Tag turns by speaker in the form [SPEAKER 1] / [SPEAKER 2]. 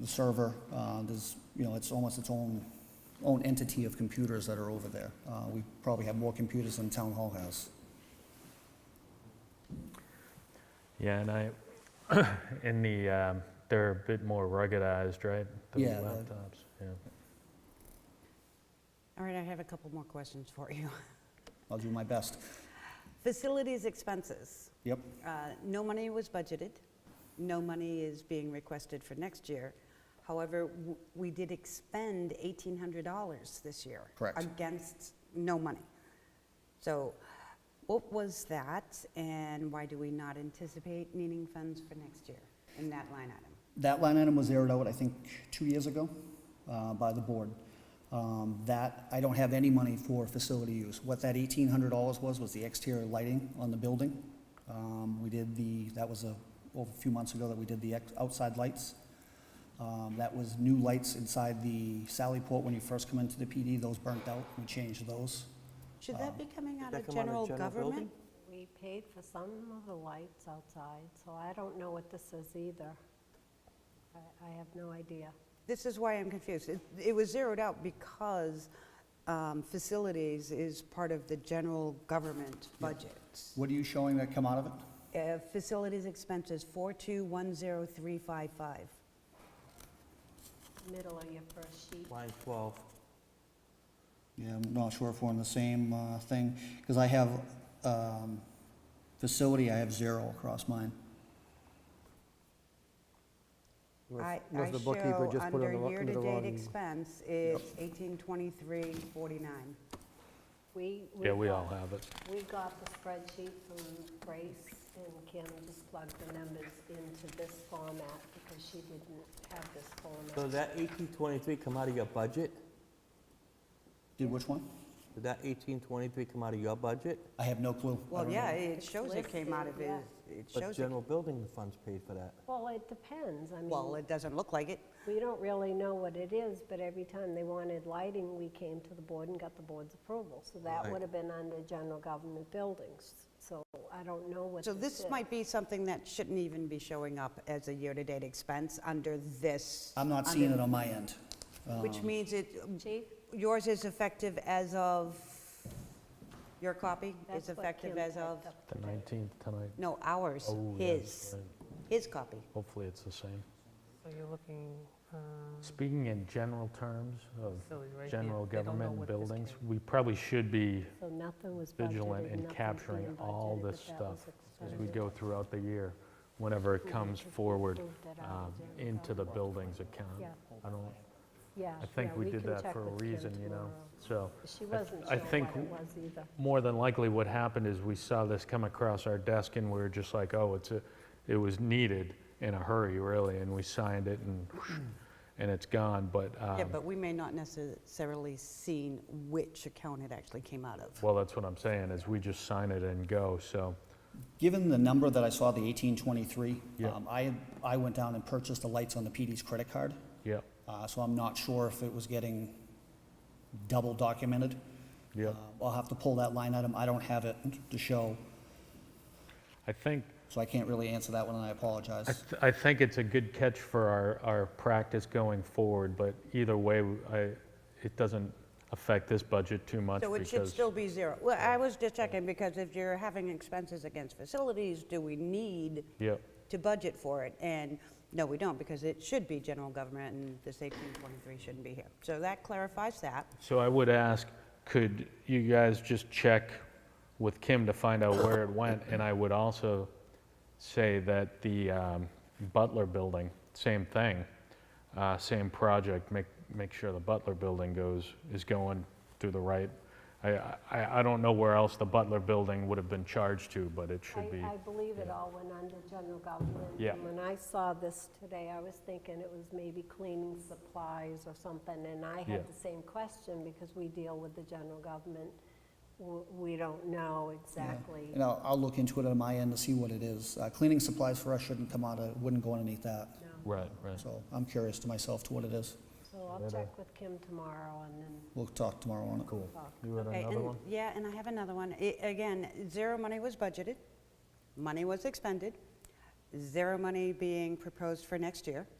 [SPEAKER 1] the server, uh, there's, you know, it's almost its own, own entity of computers that are over there. Uh, We probably have more computers than Town Hall has.
[SPEAKER 2] Yeah, and I, in the, um, they're a bit more ruggedized, right? The
[SPEAKER 1] Yeah, the-
[SPEAKER 2] Laptops, yeah.
[SPEAKER 3] All right, I have a couple more questions for you.
[SPEAKER 1] I'll do my best.
[SPEAKER 3] Facilities expenses.
[SPEAKER 1] Yep,
[SPEAKER 3] Uh, No money was budgeted. No money is being requested for next year. However, w- we did expend $1,800 this year.
[SPEAKER 1] Correct.
[SPEAKER 3] Against no money. So what was that, and why do we not anticipate needing funds for next year in that line item?
[SPEAKER 1] that line item was zeroed out, I think, two years ago uh, by the board. Um, That, I don't have any money for facility use. What that $1,800 was, was the exterior lighting on the building. Um, We did the, that was a, over a few months ago that we did the ex- outside lights. Um, That was new lights inside the Sally Port when you first come into the PD, those burnt out, we changed those.
[SPEAKER 3] Should that be coming out
[SPEAKER 4] Um, that
[SPEAKER 3] of
[SPEAKER 4] come out of
[SPEAKER 3] general
[SPEAKER 4] general building?
[SPEAKER 3] government?
[SPEAKER 5] We paid for some of the lights outside, so I don't know what this is either. I I have no idea.
[SPEAKER 3] This is why I'm confused. It- It was zeroed out because um, facilities is part of the general government budget.
[SPEAKER 1] What are you showing that come out of it?
[SPEAKER 3] Uh, Facilities expenses, 4210355.
[SPEAKER 5] Middle of your first sheet.
[SPEAKER 4] Line 12.
[SPEAKER 1] Yeah, I'm not sure if we're on the same uh, thing, because I have um, facility, I have zero across mine.
[SPEAKER 4] Unless-
[SPEAKER 3] I
[SPEAKER 4] unless
[SPEAKER 3] I
[SPEAKER 4] the bookkeeper
[SPEAKER 3] show
[SPEAKER 4] just put it on
[SPEAKER 3] under
[SPEAKER 4] the wrong- under the
[SPEAKER 3] year-to-date
[SPEAKER 4] wrong-
[SPEAKER 3] expense is 182349.
[SPEAKER 5] We, we
[SPEAKER 2] Yeah, we all
[SPEAKER 5] got-
[SPEAKER 2] have it.
[SPEAKER 5] We got the spreadsheet from Grace, and Kim just plugged the numbers into this format because she didn't have this
[SPEAKER 4] So
[SPEAKER 5] format.
[SPEAKER 4] that 1823 come out of your budget?
[SPEAKER 1] Did which one?
[SPEAKER 4] Did that 1823 come out of your budget?
[SPEAKER 1] I have no clue. I
[SPEAKER 3] Well,
[SPEAKER 1] don't
[SPEAKER 3] yeah,
[SPEAKER 1] know.
[SPEAKER 3] it
[SPEAKER 5] It's
[SPEAKER 3] shows it came out of
[SPEAKER 5] listed,
[SPEAKER 3] his,
[SPEAKER 5] yeah.
[SPEAKER 3] it
[SPEAKER 4] But
[SPEAKER 3] shows it.
[SPEAKER 4] general building funds paid for that.
[SPEAKER 5] Well, it depends. I
[SPEAKER 3] Well,
[SPEAKER 5] mean,
[SPEAKER 3] it doesn't look like it.
[SPEAKER 5] we don't really know what it is, but every time they wanted lighting, we came to the board and got the board's approval. So that
[SPEAKER 4] Right.
[SPEAKER 5] would have been under general government buildings. So I don't know what
[SPEAKER 3] So
[SPEAKER 5] this is.
[SPEAKER 3] this might be something that shouldn't even be showing up as a year-to-date expense under this.
[SPEAKER 1] I'm not
[SPEAKER 3] under-
[SPEAKER 1] seeing it on my end.
[SPEAKER 3] Which
[SPEAKER 2] Um,
[SPEAKER 3] means it, um,
[SPEAKER 5] Chief,
[SPEAKER 3] yours is effective as of, your copy is
[SPEAKER 5] that's what
[SPEAKER 3] effective
[SPEAKER 5] Kim
[SPEAKER 3] as
[SPEAKER 5] typed
[SPEAKER 3] of,
[SPEAKER 5] up
[SPEAKER 2] The
[SPEAKER 5] today.
[SPEAKER 2] 19th tonight.
[SPEAKER 3] no, ours,
[SPEAKER 2] Oh, yeah,
[SPEAKER 3] his,
[SPEAKER 2] right.
[SPEAKER 3] his copy.
[SPEAKER 2] Hopefully it's the same.
[SPEAKER 6] So you're looking, um,
[SPEAKER 2] Speaking in general terms of
[SPEAKER 6] facility right here.
[SPEAKER 2] general
[SPEAKER 6] They don't know
[SPEAKER 2] government and
[SPEAKER 6] what this
[SPEAKER 2] buildings,
[SPEAKER 6] came-
[SPEAKER 2] we probably should be
[SPEAKER 5] So nothing was budgeted.
[SPEAKER 2] vigilant in
[SPEAKER 5] nothing's
[SPEAKER 2] capturing
[SPEAKER 5] being
[SPEAKER 2] all
[SPEAKER 5] budgeted,
[SPEAKER 2] this
[SPEAKER 5] but that was
[SPEAKER 2] stuff as we
[SPEAKER 5] expended.
[SPEAKER 2] go throughout the year, whenever it comes
[SPEAKER 5] Because we
[SPEAKER 2] forward
[SPEAKER 5] moved it out
[SPEAKER 2] um,
[SPEAKER 5] of general
[SPEAKER 2] into the
[SPEAKER 5] government.
[SPEAKER 2] buildings account.
[SPEAKER 5] Yeah.
[SPEAKER 2] I don't,
[SPEAKER 5] Yeah.
[SPEAKER 2] I think
[SPEAKER 5] yeah,
[SPEAKER 2] we did
[SPEAKER 5] can
[SPEAKER 2] that
[SPEAKER 5] check
[SPEAKER 2] for a
[SPEAKER 5] with Kim
[SPEAKER 2] reason, you know? So
[SPEAKER 5] tomorrow. She wasn't
[SPEAKER 2] I
[SPEAKER 5] sure
[SPEAKER 2] think
[SPEAKER 5] what it
[SPEAKER 2] w-
[SPEAKER 5] was either.
[SPEAKER 2] more than likely what happened is we saw this come across our desk and we were just like, oh, it's a, it was needed in a hurry, really, and we signed it and, and it's gone, but,
[SPEAKER 3] Yeah,
[SPEAKER 2] um,
[SPEAKER 3] but we may not necessarily seen which account it actually came out of.
[SPEAKER 2] well, that's what I'm saying, is we just sign it and go, so.
[SPEAKER 1] Given the number that I saw, the 1823,
[SPEAKER 2] Yeah.
[SPEAKER 1] um, I, I went down and purchased the lights on the PD's credit card,
[SPEAKER 2] Yep,
[SPEAKER 1] uh, so I'm not sure if it was getting double documented.
[SPEAKER 2] yep.
[SPEAKER 1] Uh, I'll have to pull that line item. I don't have it to show,
[SPEAKER 2] I think,
[SPEAKER 1] so I can't really answer that one, and I
[SPEAKER 2] I
[SPEAKER 1] apologize.
[SPEAKER 2] th- I think it's a good catch for our, our practice going forward, but either way, I, it doesn't affect this budget too much
[SPEAKER 3] So it
[SPEAKER 2] because.
[SPEAKER 3] should still be zero. Well, I was just checking, because if you're having expenses against facilities, do we need
[SPEAKER 2] Yep,
[SPEAKER 3] to budget for it? And no, we don't, because it should be general government, and this 1823 shouldn't be here. So that clarifies that.
[SPEAKER 2] so I would ask, could you guys just check with Kim to find out where it went? And I would also say that the um, Butler Building, same thing, uh, same project, make, make sure the Butler Building goes, is going through the right. I, I, I don't know where else the Butler Building would have been charged to, but it
[SPEAKER 5] I,
[SPEAKER 2] should be.
[SPEAKER 5] I believe it all went under general government.
[SPEAKER 2] Yeah.
[SPEAKER 5] And when I saw this today, I was thinking it was maybe cleaning supplies or something, and I
[SPEAKER 2] Yeah.
[SPEAKER 5] had the same question because we deal with the general government. W- We don't know exactly.
[SPEAKER 1] And I'll, I'll look into it on my end to see what it is. Uh, Cleaning supplies for us shouldn't come out of, wouldn't go underneath that,
[SPEAKER 5] No.
[SPEAKER 2] Right, right.
[SPEAKER 1] so I'm curious to myself to what it is.
[SPEAKER 5] So I'll check with Kim tomorrow and then
[SPEAKER 1] We'll talk tomorrow on it.
[SPEAKER 2] Cool.
[SPEAKER 5] talk.
[SPEAKER 2] You had
[SPEAKER 3] Okay,
[SPEAKER 2] another
[SPEAKER 3] and-
[SPEAKER 2] one?
[SPEAKER 3] Yeah, and I have another one. I- Again, zero money was budgeted, money was expended, zero money being proposed for next year.